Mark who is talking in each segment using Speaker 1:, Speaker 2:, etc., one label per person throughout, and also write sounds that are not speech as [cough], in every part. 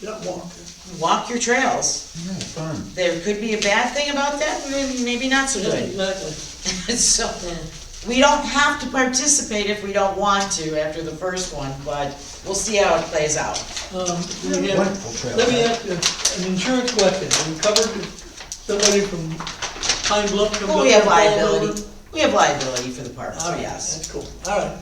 Speaker 1: Yeah, walk.
Speaker 2: walk your trails.
Speaker 3: Yeah, fun.
Speaker 2: There could be a bad thing about that, maybe, maybe not so
Speaker 1: Yeah,
Speaker 2: good.
Speaker 1: Exactly.
Speaker 2: [laughs] So, we don't have to participate if we don't want to after the first one, but we'll see how it plays out.
Speaker 1: Um, we
Speaker 3: Wonderful
Speaker 1: have-
Speaker 3: trail.
Speaker 1: Let me ask you, an insurance question, we covered somebody from Pine Bluff. comes
Speaker 2: But
Speaker 1: up
Speaker 2: we have
Speaker 1: and falls over?
Speaker 2: liability, we have liability for the park,
Speaker 1: All
Speaker 2: so
Speaker 1: right,
Speaker 2: yes.
Speaker 1: that's cool, all right.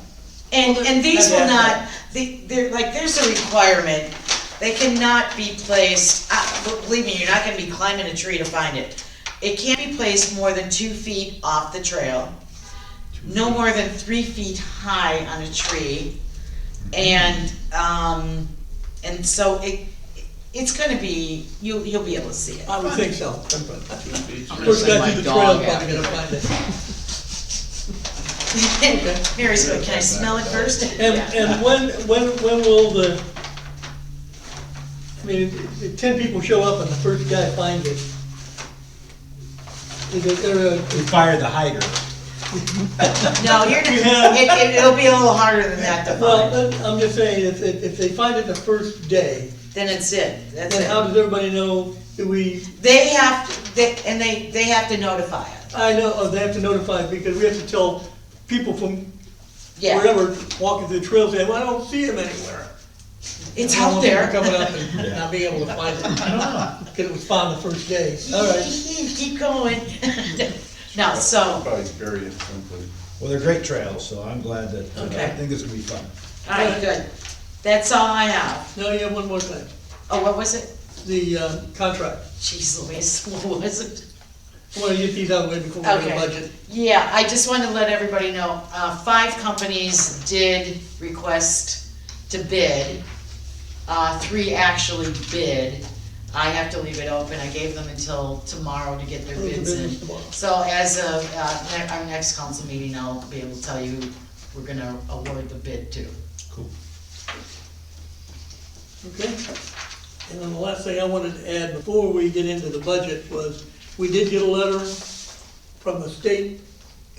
Speaker 2: And, and these will
Speaker 1: Okay.
Speaker 2: not, they, they're, like, there's a requirement, they cannot be placed, uh, believe me, you're not gonna be climbing a tree to find it. It can't be placed more than two feet off the trail, no more than three feet high on a tree. And, um, and so it, it's gonna be, you, will you'll be able to
Speaker 1: [laughs]
Speaker 2: see it.
Speaker 1: I would think so.
Speaker 4: gonna
Speaker 1: First
Speaker 4: send
Speaker 1: guy
Speaker 4: my
Speaker 1: through the
Speaker 4: dog
Speaker 1: trail,
Speaker 4: after
Speaker 1: probably gonna find it.
Speaker 2: Mary's going, can I smell it first?
Speaker 1: And,
Speaker 2: Yeah.
Speaker 1: and when, when, when will the, I mean, if ten people show up and the first guy finds it. Is it, there a-
Speaker 3: We fire the hider.
Speaker 2: No, you're, not- it, it- it'll be a little harder than that to
Speaker 1: well,
Speaker 2: find.
Speaker 1: I'm- I'm just saying, if, if if they find it the first day,
Speaker 2: Then it's it, that's
Speaker 1: then um, how
Speaker 2: it.
Speaker 1: does everybody know, do we,
Speaker 2: They have, to- they, and they, they have to notify us.
Speaker 1: I know, oh, they have to notify, because we have to tell people from
Speaker 2: Yeah,
Speaker 1: wherever walking through the trail, saying, well, I don't see them anywhere.
Speaker 2: it's
Speaker 1: I don't
Speaker 2: out
Speaker 1: want people
Speaker 2: there. [laughs]
Speaker 1: Coming up and not being able to find it, because it was found the first day, all right.
Speaker 2: Keep going. [laughs] No, so,
Speaker 4: Probably bury it someplace.
Speaker 3: Well, they're great trails, so I'm glad that, uh, I
Speaker 2: Okay.
Speaker 3: think it's gonna be fun.
Speaker 2: alright, good. That's all I have.
Speaker 1: Now you have one more thing,
Speaker 2: Oh, what was it?
Speaker 1: the uh, contract.
Speaker 2: Jeez Louise, [laughs] what was it?
Speaker 1: I want to get these out of the way before we
Speaker 2: Okay.
Speaker 1: get the budget.
Speaker 2: Yeah, I just wanted to let everybody know, uh, five companies did request to bid. Uh, three actually bid. I have to leave it open. I gave them until tomorrow to get their
Speaker 1: Close the
Speaker 2: bids in.
Speaker 1: business tomorrow.
Speaker 2: So as of, uh, ne- our next council meeting, I'll be able to tell you, who we're gonna award the bid to.
Speaker 3: Cool.
Speaker 1: Okay. And then the last thing I wanted to add before we get into the budget was, we did get a letter from the state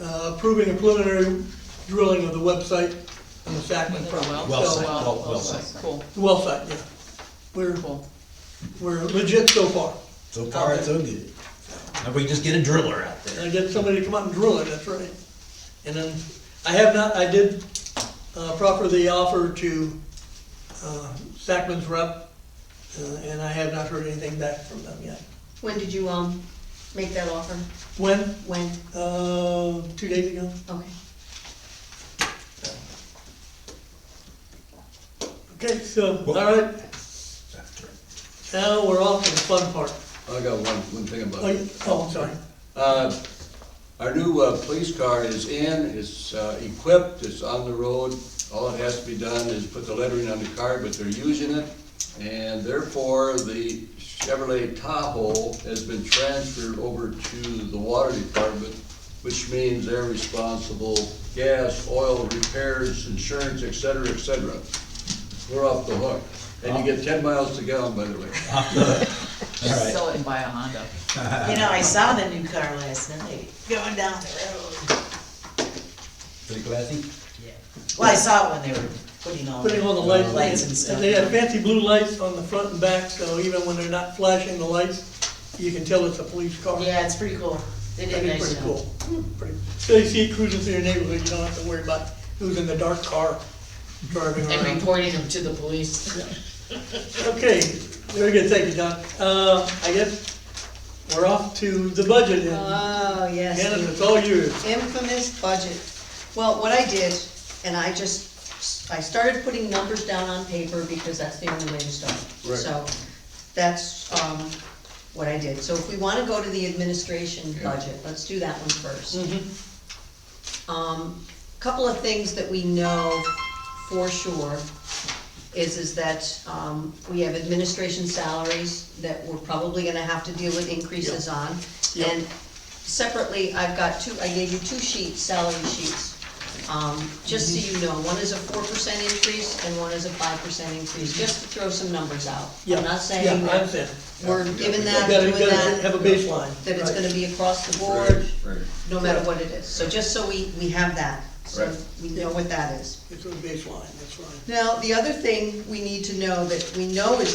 Speaker 1: uh, approving a preliminary drilling of the website on the Sacman
Speaker 2: Oh,
Speaker 1: property.
Speaker 3: Well
Speaker 1: So,
Speaker 3: site,
Speaker 1: uh,
Speaker 3: well, well site.
Speaker 5: Cool,
Speaker 1: The well site, yeah. We're,
Speaker 5: cool.
Speaker 1: we're legit so far.
Speaker 3: So far, it's so good. Now, we can just get a driller out there.
Speaker 1: And I get somebody to come out and drill it, that's right. And then, I have not, I did uh, proffer the offer to uh, Sacman's rep, uh, and I have not heard anything back from them yet.
Speaker 6: When did you, um, make that offer?
Speaker 1: When?
Speaker 6: When?
Speaker 1: Uh, Two days ago?
Speaker 6: Okay.
Speaker 1: Okay, so, all
Speaker 3: Well-
Speaker 1: right, now we're off to the fun part.
Speaker 7: I got one, one thing
Speaker 1: Oh,
Speaker 7: about
Speaker 1: you-
Speaker 7: it.
Speaker 1: oh, I'm sorry.
Speaker 7: Uh, Our new uh, police car is in, it's uh, equipped, it's on the road. All it has to be done is put the lettering on the car, but they're using it. And therefore, the Chevrolet Tahoe has been transferred over to the water department, which means they're responsible, gas, oil, repairs, insurance, et cetera, et cetera. We're off the hook. And you get ten miles to gallon, by the way.
Speaker 3: All right.
Speaker 5: Sell it and buy a Honda.
Speaker 2: You know, I saw the new car last night, going down the road.
Speaker 3: Pretty classy.
Speaker 2: Well, I saw it when they were putting all.
Speaker 1: Putting on the lights.
Speaker 2: Lights and stuff.
Speaker 1: They have fancy blue lights on the front and back, so even when they're not flashing the lights, you can tell it's a police car.
Speaker 2: Yeah, it's pretty cool. They did a
Speaker 1: That'd be
Speaker 2: nice
Speaker 1: pretty
Speaker 2: job.
Speaker 1: cool. Pretty- So you see cruising through your neighborhood, you don't have to worry about who's in the dark car driving
Speaker 2: And
Speaker 1: around.
Speaker 2: reporting them to the police.
Speaker 1: Okay, very good, thank you, Don. Uh, I guess we're off to the budget and,
Speaker 8: Oh, yes.
Speaker 1: Hannah, it's all yours.
Speaker 8: the Infamous budget. Well, what I did, and I just, I started putting numbers down on paper because that's the only way to start.
Speaker 7: Right.
Speaker 8: So, that's, um, what I did. So if we wanna go to the administration budget, let's do that one first. Um, couple of things that we know for sure is, is that, um, we have administration salaries that we're probably gonna have to deal with increases on.
Speaker 1: Yep.
Speaker 8: And separately, I've got two, I gave you two sheets, salary sheets. Um, just
Speaker 1: Mhm.
Speaker 8: so you know, one is a four percent increase and one is a five percent increase, just to throw some numbers out.
Speaker 1: Yeah,
Speaker 8: I'm not
Speaker 1: yeah,
Speaker 8: saying
Speaker 1: I
Speaker 8: that
Speaker 1: understand.
Speaker 8: we're giving that,
Speaker 1: Gotta,
Speaker 8: doing
Speaker 1: gotta
Speaker 8: that,
Speaker 1: have a baseline.
Speaker 8: that it's
Speaker 1: Right.
Speaker 8: gonna be across the board,
Speaker 7: Right, right.
Speaker 8: no matter what it is. So just so we, we have that, so
Speaker 7: Right.
Speaker 8: we know what that is.
Speaker 1: It's a baseline, that's right.
Speaker 8: Now, the other thing we need to know that we know is